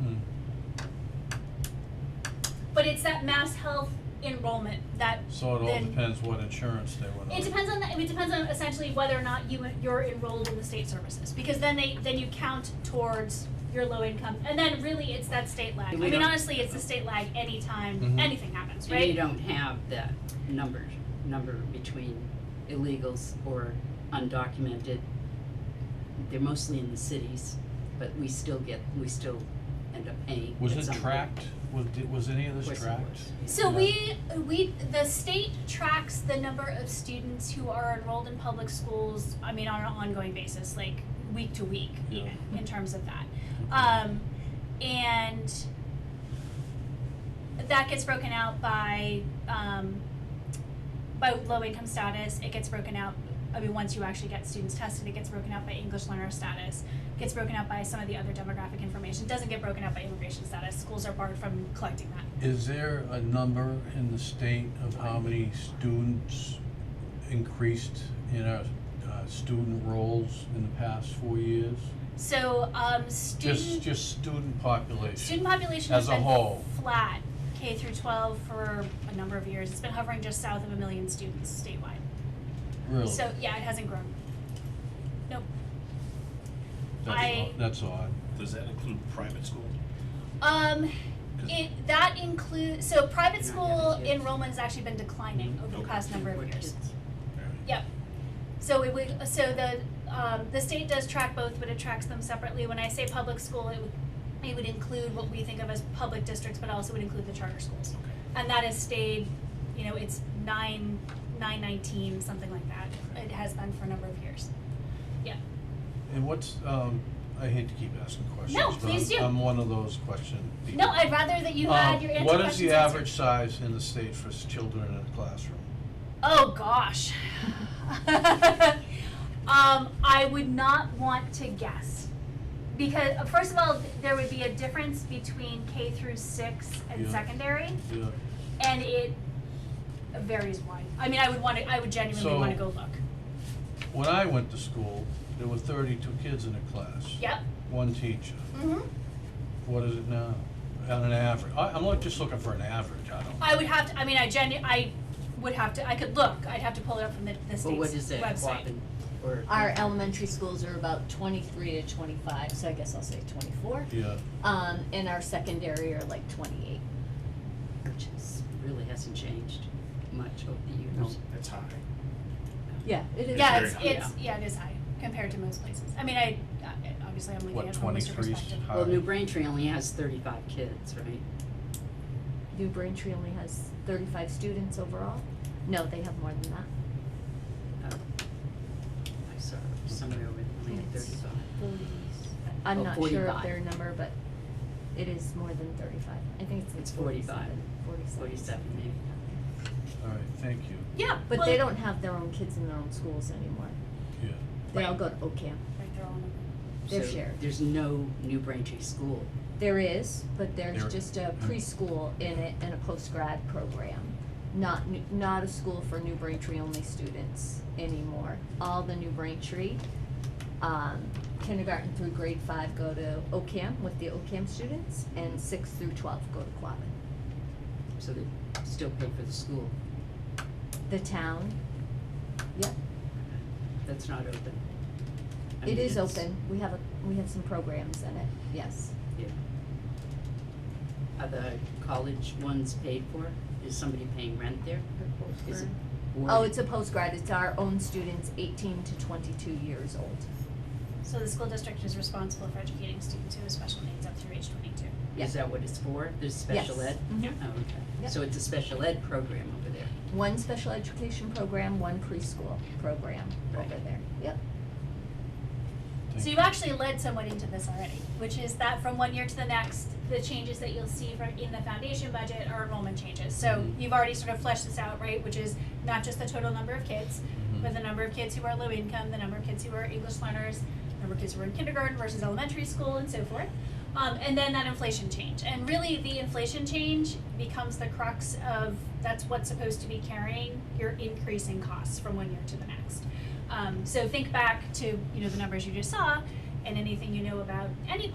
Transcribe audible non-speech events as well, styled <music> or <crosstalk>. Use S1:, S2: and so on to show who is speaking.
S1: Hmm.
S2: but it's that mass health enrollment that
S1: So it all
S2: then-
S1: depends what insurance they went on.
S2: It depends on, the- it depends on essentially whether or not you, you're enrolled in the state services, because then they, then you count towards your low income, and then really, it's that state lag. I
S3: And we
S2: mean,
S3: don't-
S2: honestly, it's the state lag anytime,
S1: Mhm.
S2: anything happens,
S3: And you
S2: right?
S3: don't have that number, number between illegals or undocumented. They're mostly in the cities, but we still get, we still end up paying
S1: Was
S3: at
S1: it
S3: some rate.
S1: tracked? Was, did, was any of
S3: Of
S1: this
S3: course it
S1: tracked?
S3: was.
S2: So
S1: Yeah.
S2: we, we, the state tracks the number of students who are enrolled in public schools, I mean, on an ongoing basis, like week to week,
S1: Yeah. Mm-hmm.
S2: even, in terms of that.
S1: Okay.
S2: Um, and that gets broken out by, um, by low income status. It gets broken out, I mean, once you actually get students tested, it gets broken out by English learner status. Gets broken out by some of the other demographic information. Doesn't get broken out by immigration status. Schools are barred from collecting that.
S1: Is there a number in the state of how many students increased in our, uh, student rolls in the past four years?
S2: So, um, student.
S1: Just, just student population.
S2: Student population
S1: As
S2: has
S1: a
S2: been
S1: whole.
S2: flat K through twelve for a number of years. It's been hovering just south of a million students statewide.
S1: Really?
S2: So yeah, it hasn't grown. Nope.
S1: That's
S2: I-
S1: odd. That's odd.
S4: Does that include private school?
S2: Um,
S4: 'Cause-
S2: it that includes so private
S3: Not
S2: school
S3: having kids.
S2: enrollment has actually been declining over the
S4: Okay.
S2: past number of
S3: What
S2: years.
S3: kids?
S2: Yep. So it would, so the, um, the state does track both, but it tracks them separately. When I say public school, it would, it would include what we think of as public districts, but also would include the charter schools. And that has stayed, you know, it's nine, nine nineteen, something like that. It has been for a number of years. Yeah.
S1: And what's, um, I hate to keep asking questions,
S2: No,
S1: but
S2: please
S1: I'm,
S2: do.
S1: I'm one of those question people.
S2: No, I'd rather that you
S1: Um,
S2: had your answer questions answered.
S1: What is the average size in the state for s- children in a classroom?
S2: Oh gosh. <laughs> um, I would not want to guess. Because uh, first of all, th- there would be a difference between K through six and
S1: Yeah.
S2: secondary,
S1: Yeah.
S2: and it varies wide. I mean, I would want to. I would genuinely
S1: So-
S2: want to go look.
S1: When I went to school, there were thirty-two kids in a class.
S2: Yep.
S1: One teacher.
S2: hmm
S1: What is it now? On an average, I, I'm look- just looking for an average, I don't.
S2: I would have to. I mean, I genu- I would have to. I could look. I'd have to pull it up from the, the state's
S3: Well, what is it,
S2: website.
S3: Quabbin or?
S5: Our elementary schools are about twenty-three to twenty-five, so I guess I'll say twenty-four.
S1: Yeah,
S5: Um, and our secondary are like twenty-eight.
S3: Which is, really hasn't changed much over the years.
S4: That's high.
S5: Yeah, it is.
S2: Yeah,
S4: It's
S2: it's,
S4: very
S2: it's yeah, it is high compared to most places. I mean, I I- obviously I'm looking
S1: what,
S2: at it from a Worcester
S1: twenty-three?
S2: perspective.
S3: Well, New Braintree only has thirty-five kids, right?
S5: New Braintree only has thirty-five students overall. No, they have more than that.
S3: Uh, I saw somewhere with only had
S5: It's
S3: thirty-five.
S5: forty- I'm
S3: Oh,
S5: not sure
S3: 45.
S5: of their number, but it is more than thirty-five. I think it's like
S3: It's 45.
S5: forty-seven. Forty-seven.
S3: Forty-seven maybe.
S1: All right, thank you,
S2: Yeah, Uh,
S5: But
S2: well,
S5: they don't have their own kids in their own schools anymore.
S1: yeah.
S5: They all
S2: Right.
S5: go to Oak Camp.
S2: Right, they're all in
S5: They're
S3: So
S5: shared.
S3: There's no New Braintree school.
S5: There is, but
S1: There-
S5: there's just a preschool in it and a post-grad program. Not, n- not a school for New Braintree only students anymore. All the New Braintree, um, kindergarten through grade five go to OCAM with the OCAM students, and six through twelve go to Quabbin.
S3: So they still pay for the school,
S5: The town, yep,
S3: that's not open. I
S5: it
S3: mean,
S5: is
S3: it's-
S5: open, we have a, we have some programs in it, yes.
S3: Yeah. Are the college ones paid for? Is somebody paying rent there? Is it? or-
S5: Oh, it's a post-grad, it's our own students eighteen to twenty-two years old,
S2: So the school district is responsible for educating students who have special needs up through age twenty-two.
S5: yeah.
S3: Is that what it's for? There's special
S5: Yes.
S3: ed?
S5: Mhm.
S3: Oh, okay.
S5: Yep.
S3: So it's a special ed program over there.
S5: one special education program, one preschool program over
S3: Right.
S5: there. Yep.
S1: Thank
S2: So you've actually led someone into this already, which is that from one year to the next, the changes that you'll see from in the foundation budget are enrollment changes. So
S1: Mhm.
S2: you've already sort of fleshed this out, right, which is not just the total number of kids,
S1: Mhm.
S2: but the number of kids who are low income, the number of kids who are English learners, the number of kids who are in kindergarten versus elementary school and so forth. Um, and then that inflation change. And really the inflation change becomes the crux of that's what's supposed to be carrying your increasing costs from one year to the next. Um, so think back to, you know, the numbers you just saw and anything you know about any part